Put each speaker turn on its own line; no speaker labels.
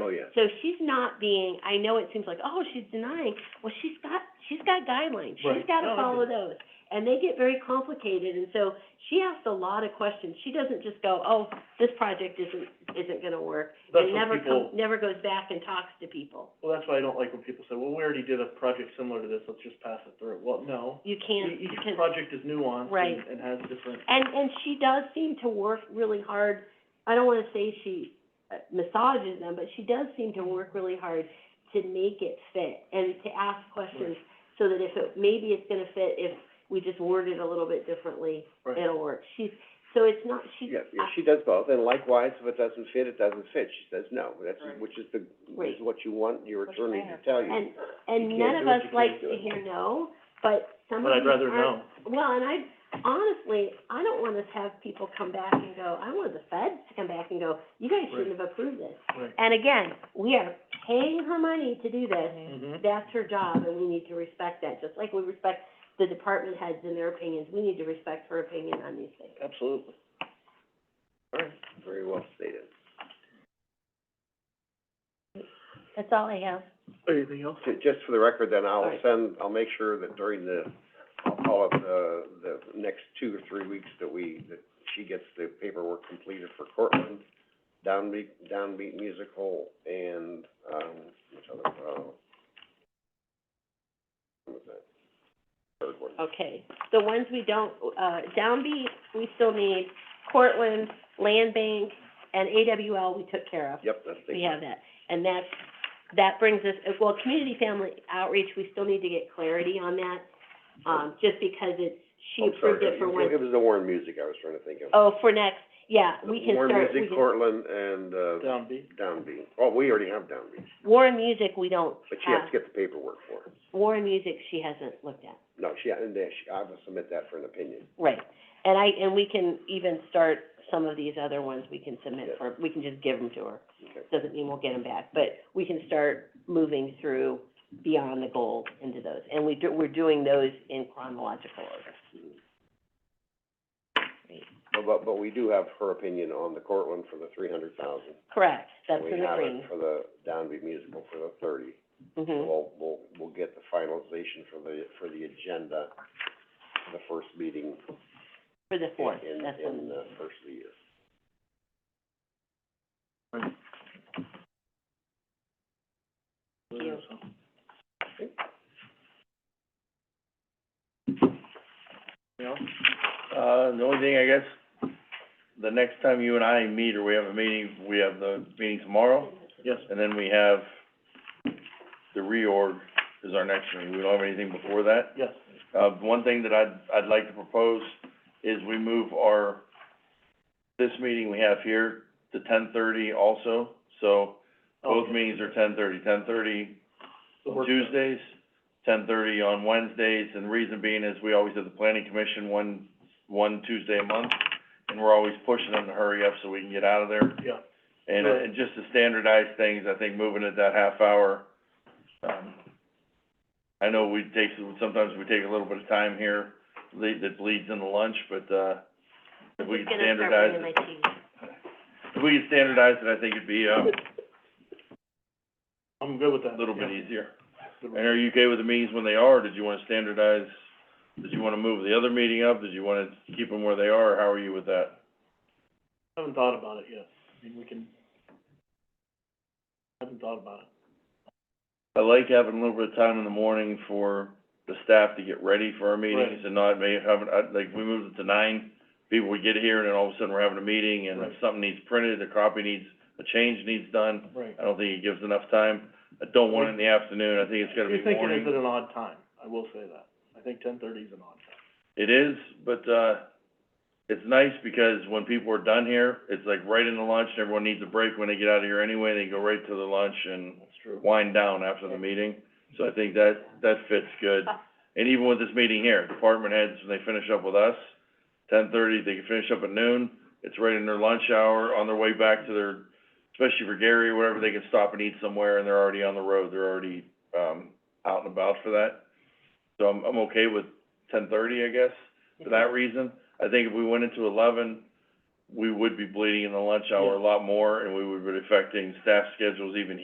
Oh, yeah.
So she's not being, I know it seems like, oh, she's denying, well, she's got, she's got guidelines, she's
Right. No,
gotta
I
follow
agree.
those. And they get very complicated, and so she asks a lot of questions, she doesn't just go, oh, this project isn't, isn't gonna work.
That's
And
what
never
people-
come, never goes back and talks to people,
Well, that's why I don't like when people say, well, we already did a project similar to this, let's just pass it through. Well, no.
you
E-
can't, you
Each
can't.
project is nuanced
Right.
and, and has different,
And, and she does seem to work really hard, I don't wanna say she uh, massages them, but she does seem to work really hard to make it fit and to ask questions, so that if it, maybe it's gonna fit if we just word it a little bit differently,
right.
it'll work. She's, so it's not, she's,
Yeah, yeah, she does both, and likewise, if it doesn't fit, it doesn't fit, she says no, that's, which is the,
Right.
is what you want your
Which
attorney to
matters.
tell you.
and, and
You
none of
can't do it,
us
you can't
likes
do
to
it.
hear no, but some
But
of
I'd
these
rather
aren't-
know.
Well, and I, honestly, I don't want us to have people come back and go, I want the feds to come back and go, you guys shouldn't have approved this.
Right.
And again, we are paying her money to do this,
Mhm.
that's her job, and we need to respect that, just like we respect the department heads and their opinions, we need to respect her opinion on these things.
Absolutely. All right.
Very well stated.
That's all I have.
Anything else?
Ju- Just for the record, then I'll
Alright.
send, I'll make sure that during the, I'll call it the, the next two or three weeks that we, that she gets the paperwork completed for Cortland, Downbeat, Downbeat Musical, and, um, which other, uh, what was that? Third one.
Okay, the ones we don't, uh, downbeat, we still need, Cortland, Land Bank, and AWL, we took care of.
Yep, that's the.
We have that, and that's, that brings us, well, community family outreach, we still need to get clarity on that, um, just because it's, she
I'm sorry,
approved it for
it-
one.
It was the Warren Music I was trying to think of.
Oh, for next, yeah, we can start,
Warren
we
Music,
can-
Cortland, and, uh,
Downbeat.
Downbeat. Oh, we already have Downbeat,
Warren Music, we don't
but she has
have,
to get the paperwork for it.
Warren Music, she hasn't looked at,
No, she, and then she, I will submit that for an opinion.
right. And I, and we can even start some of these other ones, we can submit
Yeah.
for, we can just give them to her.
Okay.
Doesn't mean we'll get them back, but we can start moving through beyond the goal into those. And we do, we're doing those in chronological order.
But- But, but we do have her opinion on the Cortland for the three hundred thousand.
Correct, that's in the
We
green.
have it for the Downbeat Musical for the thirty.
Mm-hmm,
We'll, we'll, we'll get the finalization for the, for the agenda, for the first meeting
for the fourth,
in,
that's
in
in,
the first of the year.
Thank you.
Anything else?
Uh, the only thing, I guess, the next time you and I meet, or we have a meeting, we have the meeting tomorrow,
Yes.
and then we have the reorg is our next meeting. We don't have anything before that.
Yes.
Uh, one thing that I'd, I'd like to propose is we move our, this meeting we have here to ten thirty also. So both
Okay.
meetings are ten thirty. Ten thirty
Oh. The work-
Tuesdays, ten thirty on Wednesdays, and the reason being is we always have the planning commission one, one Tuesday a month, and we're always pushing them to hurry up so we can get out of there.
Yeah.
And,
Right.
and just to standardize things, I think moving it that half hour, um, I know we take, sometimes we take a little bit of time here, lead, that bleeds into lunch, but, uh, if we
Who's
could
gonna start
standardize
bringing
it,
my cheese?
if we could standardize it, I think it'd be, uh,
I'm good with that.
a little bit
Yeah.
easier.
Good
And are you okay with the meetings when they are, or did you wanna standardize, did you wanna move the other meeting up, did you wanna keep them where they are, or how are you with that?
I Haven't thought about it yet. I mean, we can, haven't thought about it.
I like having a little bit of time in the morning for the staff to get ready for our meetings
Right.
and not may have, I, like, we moved it to nine, people would get here and then all of a sudden we're having a meeting and if
Right.
something needs printed, a copy needs, a change needs done,
Right.
I don't think it gives enough time. I don't want it in the afternoon, I think it's gotta be
You're thinking
morning.
it's at an odd time. I will say that. I think ten thirty is an odd time.
It is, but, uh, it's nice because when people are done here, it's like right into lunch, and everyone needs a break when they get out of here anyway, they go right to the lunch and
That's true.
wind down after the meeting. So I think that, that fits good. And even with this meeting here, department heads, when they finish up with us, ten thirty, they can finish up at noon, it's right in their lunch hour, on their way back to their, especially for Gary or whatever, they can stop and eat somewhere, and they're already on the road, they're already, um, out and about for that. So I'm, I'm okay with ten thirty, I guess, for that reason. I think if we went into eleven, we would be bleeding in the lunch hour a lot more, and we would be affecting staff schedules even